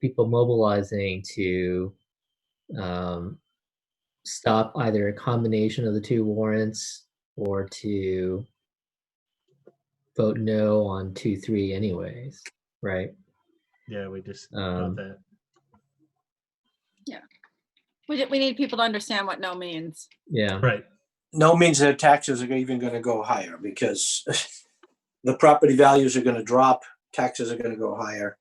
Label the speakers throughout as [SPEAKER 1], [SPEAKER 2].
[SPEAKER 1] people mobilizing to um, stop either a combination of the two warrants or to vote no on two, three anyways, right?
[SPEAKER 2] Yeah, we just
[SPEAKER 1] Um,
[SPEAKER 2] got that.
[SPEAKER 3] We, ju- we need people to understand what no means.
[SPEAKER 1] Yeah,
[SPEAKER 2] Right.
[SPEAKER 4] no means that taxes are even going to go higher because the property values are going to drop, taxes are going to go higher.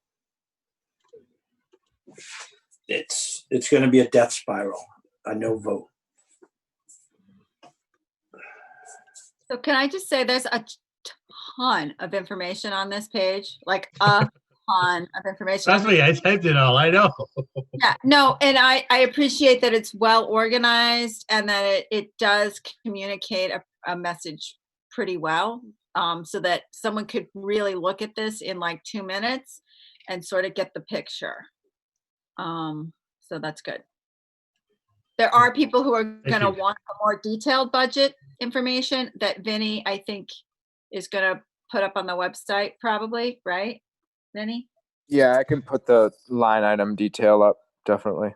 [SPEAKER 4] It's, it's going to be a death spiral, a no vote.
[SPEAKER 3] So can I just say there's a ton of information on this page, like a ton of information.
[SPEAKER 2] Trust me, I typed it all. I know.
[SPEAKER 3] Yeah, no, and I, I appreciate that it's well organized and that it, it does communicate a, a message pretty well. Um, so that someone could really look at this in like two minutes and sort of get the picture. Um, so that's good. There are people who are gonna
[SPEAKER 2] you.
[SPEAKER 3] want a more detailed budget information that Vinny, I think, is gonna put up on the website probably, right? Vinny?
[SPEAKER 5] Yeah, I can put the line item detail up, definitely.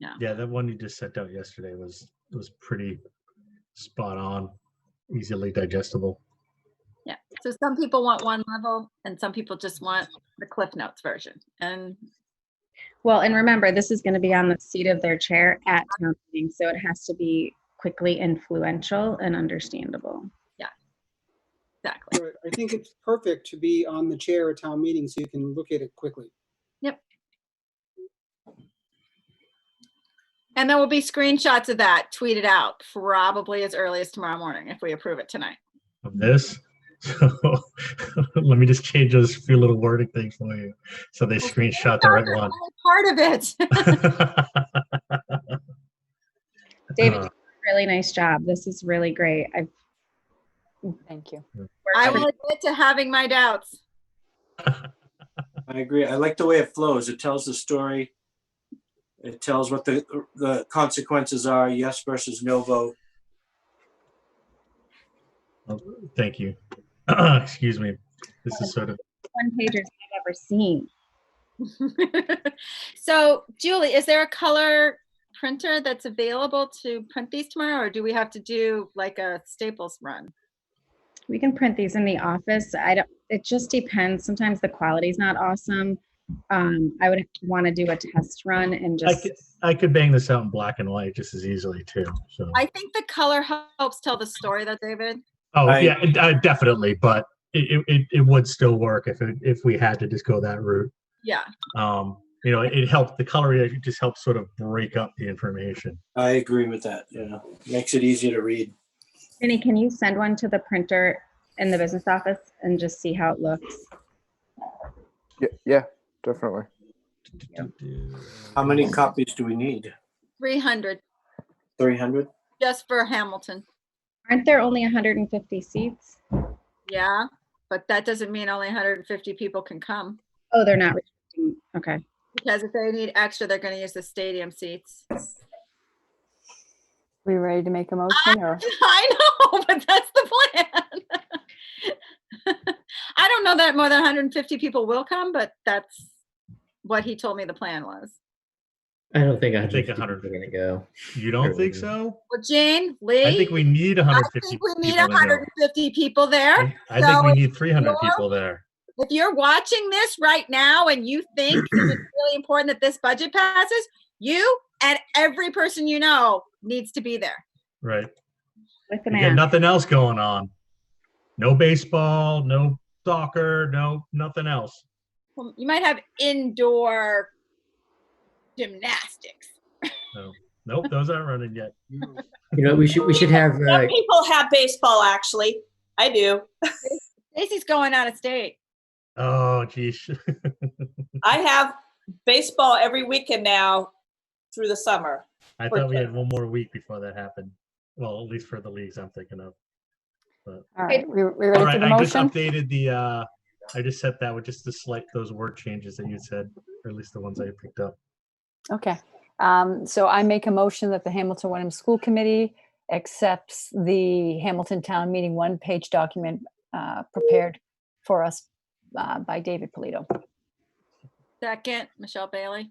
[SPEAKER 2] Yeah, that one you just sent out yesterday was was pretty spot on, easily digestible.
[SPEAKER 3] Yeah, so some people want one level and some people just want the Cliff Notes version. And
[SPEAKER 6] Well, and remember, this is going to be on the seat of their chair at town meeting, so it has to be quickly influential and understandable.
[SPEAKER 3] exactly,
[SPEAKER 7] Right. I think it's perfect to be on the chair at town meeting so you can look at it quickly.
[SPEAKER 3] and there will be screenshots of that tweeted out probably as early as tomorrow morning if we approve it tonight.
[SPEAKER 2] Of this. So let me just change those few little wording things for you. So they screenshot the right one.
[SPEAKER 3] Part of it.
[SPEAKER 6] David,
[SPEAKER 2] Uh,
[SPEAKER 6] you did a really nice job. This is really great. I've
[SPEAKER 8] Thank you.
[SPEAKER 3] I
[SPEAKER 6] worked
[SPEAKER 3] will admit to having my doubts.
[SPEAKER 4] I agree. I like the way it flows. It tells the story. It tells what the, the consequences are, yes versus no vote.
[SPEAKER 2] Oh, Thank you. Excuse me. This is sort of
[SPEAKER 6] one pagers I've ever seen.
[SPEAKER 3] So Julie, is there a color printer that's available to print these tomorrow or do we have to do like a Staples run?
[SPEAKER 6] We can print these in the office. I don't, it just depends. Sometimes the quality's not awesome. Um, I would want to do a test run and
[SPEAKER 2] I
[SPEAKER 6] just,
[SPEAKER 2] could, I could bang this out in black and white just as easily too. So
[SPEAKER 3] I think the color helps tell the story though, David.
[SPEAKER 2] oh
[SPEAKER 4] I-
[SPEAKER 2] yeah, it- uh, definitely. But it, it- it, it would still work if it, if we had to just go that route.
[SPEAKER 3] Yeah.
[SPEAKER 2] Um, you know, it, it helped the color. It just helps sort of break up the information.
[SPEAKER 4] I agree with that. Yeah, makes it easier to read.
[SPEAKER 6] Vinny, can you send one to the printer in the business office and just see how it looks?
[SPEAKER 5] Yeah, yeah, definitely.
[SPEAKER 4] How many copies do we need?
[SPEAKER 3] 300
[SPEAKER 4] Three hundred?
[SPEAKER 3] just for Hamilton.
[SPEAKER 6] Aren't there only 150 seats?
[SPEAKER 3] Yeah, but that doesn't mean only 150 people can come
[SPEAKER 6] Oh, they're not. restricting- Okay.
[SPEAKER 3] because if they need extra, they're going to use the stadium seats.
[SPEAKER 8] We ready to make a
[SPEAKER 6] Ah,
[SPEAKER 8] motion or?
[SPEAKER 3] I know, but that's the plan. I don't know that more than 150 people will come, but that's what he told me the plan was.
[SPEAKER 1] I don't think
[SPEAKER 2] I
[SPEAKER 1] I
[SPEAKER 2] think
[SPEAKER 1] think
[SPEAKER 2] 100.
[SPEAKER 1] 100 are gonna go.
[SPEAKER 2] You don't think so?
[SPEAKER 3] Well, Jane, Lee,
[SPEAKER 2] I think we need
[SPEAKER 3] I
[SPEAKER 2] 150.
[SPEAKER 3] think we need
[SPEAKER 2] people to go.
[SPEAKER 3] 150 people there.
[SPEAKER 2] I I think we
[SPEAKER 3] So
[SPEAKER 2] need 300
[SPEAKER 3] you're-
[SPEAKER 2] people there.
[SPEAKER 3] If you're watching this right now and you think it's really important that this budget passes, you and every person you know needs to be there.
[SPEAKER 2] Right.
[SPEAKER 6] With the
[SPEAKER 2] We got
[SPEAKER 6] man.
[SPEAKER 2] nothing else going on. No baseball, no soccer, no nothing else.
[SPEAKER 3] Well, you might have indoor gymnastics.
[SPEAKER 2] Nope, those aren't running yet.
[SPEAKER 1] You know, we should we should have uh,
[SPEAKER 9] Some people have baseball, actually. I do.
[SPEAKER 3] Stacy's going out of state.
[SPEAKER 2] Oh, geez.
[SPEAKER 9] I have baseball every weekend now through the summer.
[SPEAKER 2] I thought we had one more week before that happened. Well, at least for the leagues I'm thinking of.
[SPEAKER 8] All right, we, we
[SPEAKER 2] All
[SPEAKER 8] ready for
[SPEAKER 2] right,
[SPEAKER 8] the
[SPEAKER 2] I just
[SPEAKER 8] motion?
[SPEAKER 2] updated the, uh, I just set that with just the slight, those word changes that you said, or at least the ones I picked up.
[SPEAKER 8] Okay. Um, so I make a motion that the Hamilton Wenham School Committee accepts the Hamilton Town Meeting one-page document, uh, prepared for us, uh, by David Polito.
[SPEAKER 3] Second, Michelle Bailey.